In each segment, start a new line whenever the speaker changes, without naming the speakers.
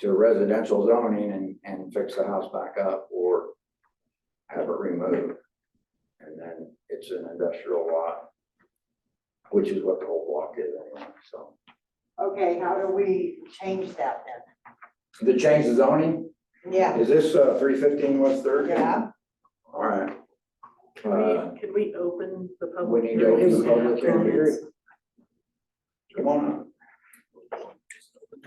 to residential zoning and, and fix the house back up or have it removed. And then it's an industrial lot, which is what the whole block is anyway, so.
Okay, how do we change that then?
The change the zoning,
Yeah,
is this, uh, three fifteen West Third?
yeah,
All right.
Could
Uh,
we, could we open the
we
public?
need to open the
hearing and
public
have
hearing.
comments?
Come on up.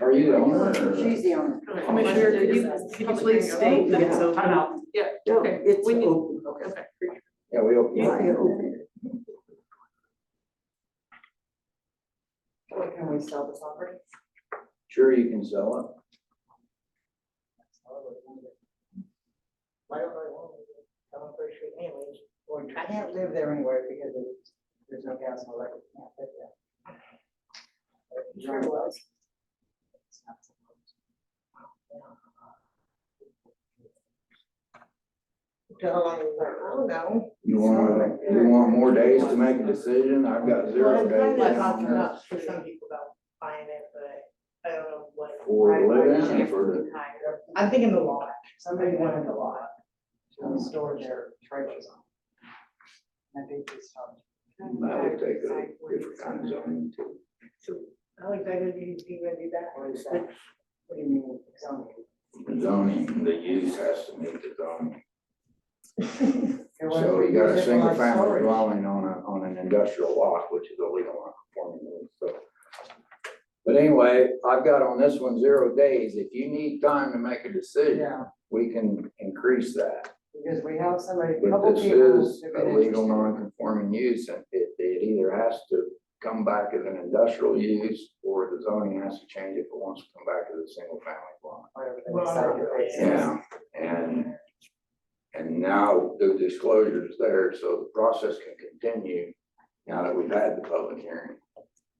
Are you the owner? or-
she's the owner.
Commissioner, could you, could you please state that it's open?
Okay,
It's
we need-
open,
okay.
Yeah, we open.
Yeah, we open
What can we sell this property?
Sure, you can sell it.
Why don't I want to, I'm pretty sure anyways, or I can't live there anyway because it's- there's no gas and electric, can't live there. Sure was. How long is that? I don't know.
You want, you want more days to make a decision? I've got zero days.
Well, it's
now.
kind of up
for some
people about buying it, but I don't know what.
For the living and for the,
I'm thinking the lot, somebody wanted the lot,
Hmm.
to store their trailers on. And I think it's, um,
that would take a different kind of zoning too.
so how exactly do you, do you gonna do that, or is that, what do you mean, zoning?
The Zoning, the use has to meet the zoning.
They want
So
to
you got a
use it for
single
like
family
storage.
dwelling on a, on an industrial lot, which is illegal on conforming use, so. But anyway, I've got on this one zero days. If you need time to make a decision,
Yeah,
we can increase that.
because we have somebody, a couple
But this
people.
is
who've
a
been
legal
interested.
non-conforming use, and it, it either has to come back as an industrial use, or the zoning has to change if it wants to come back as a single family dwelling.
Whatever they
Well,
decide to raise.
Yeah, and, and now the disclosure is there, so the process can continue now that we've had the public hearing.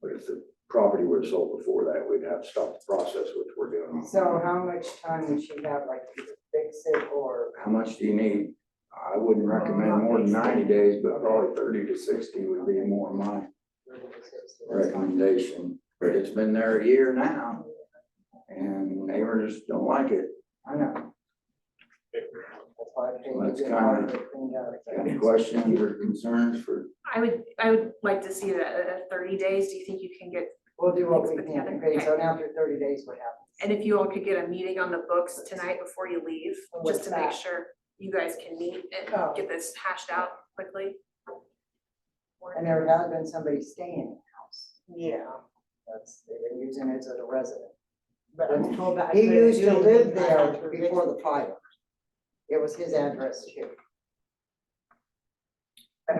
But if the property were sold before that, we'd have to stop the process, which we're doing.
So how much time would she have, like, to fix it or?
How much do you need? I wouldn't recommend more than ninety days, but probably thirty to sixty would be more my recommendation, but it's been there a year now. And neighbors don't like it.
I know. That's why I think. we
Let's
did
kinda-
all of it cleaned out.
Got Any questions or concerns for,
I would, I would like to see that at at thirty days, do you think you can get,
We'll do what we
Put
can,
together.
okay, so now after thirty days, what happens?
and if you all could get a meeting on the books tonight before you leave,
What's
just to make
that?
sure you guys can meet
Oh.
and get this hashed out quickly.
And there has been somebody staying in the house. Yeah. That's, they've been using it as a residence.
But I'm told that. I
He
couldn't
used
do
to live
anything. I
there
had to evict
before the fire. It was his address too.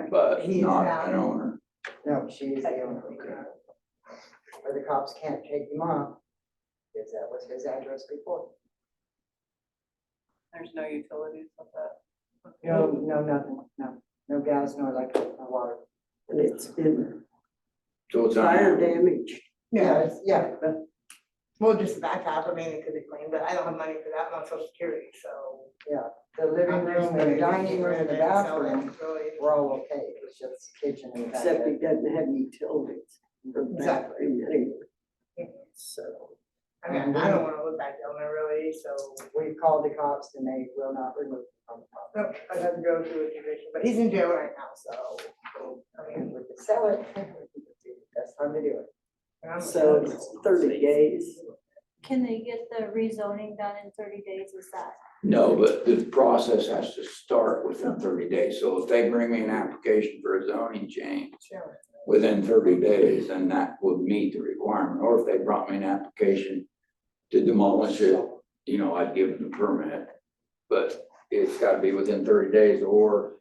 but
He's
not
out.
an owner?
No, she is the owner. Or the cops can't take him off, because that was his address before.
There's no utilities with that.
No, no, nothing, no, no gas, no electric, no water.
and it's been
So it's.
fire damage.
Yeah, it's- yeah,
Well, just the back half, I mean, it could be clean, but I don't have money for that, I'm on social security, so.
yeah. The living
I'm just
room,
gonna
the
get
dining
rid
room,
of
the
it and sell it,
bathroom,
Really.
we're all okay, it's just the kitchen and the back.
Except it doesn't have utilities.
Exactly.
So
I mean, I don't wanna look back down there really, so.
we called the cops and they will not remove him from the property.
Nope, I'd have to go through a eviction, but he's in jail right now, so. I mean,
And we could sell it, that's time to do it.
and I'm-
So it's thirty days.
Can they get the rezoning done in thirty days, is that?
No, but the process has to start within thirty days. So if they bring me an application for a zoning change
Sure.
within thirty days, then that would meet the requirement. Or if they brought me an application to demolish it, you know, I'd give them the permit. But it's gotta be within thirty days, or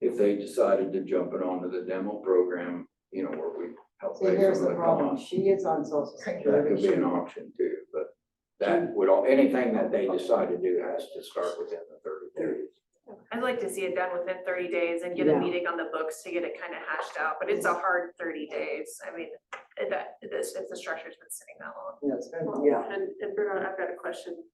if they decided to jump it onto the demo program, you know, where we help
See,
pay
here's
some of
the
the
problem,
cost.
she is on social
That could
security.
be an option too, but that would, all anything that they decide to do has to start within the thirty days.
I'd like to see it done within thirty days and get a
Yeah.
meeting on the books to get it kind of hashed out, but it's a hard thirty days, I mean, it- that, this, if the structure's been sitting that long.
Yeah, it's been,
Yeah.
And, and Bernard, I've got a question.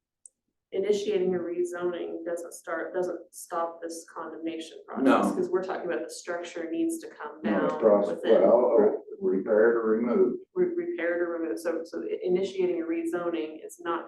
Initiating a rezoning doesn't start, doesn't stop this condemnation process.
No.
Because we're talking about the structure needs to come
No,
down
it's process,
within,
well, or repaired or removed.
re- repaired or removed. So, so initiating a rezoning is not gonna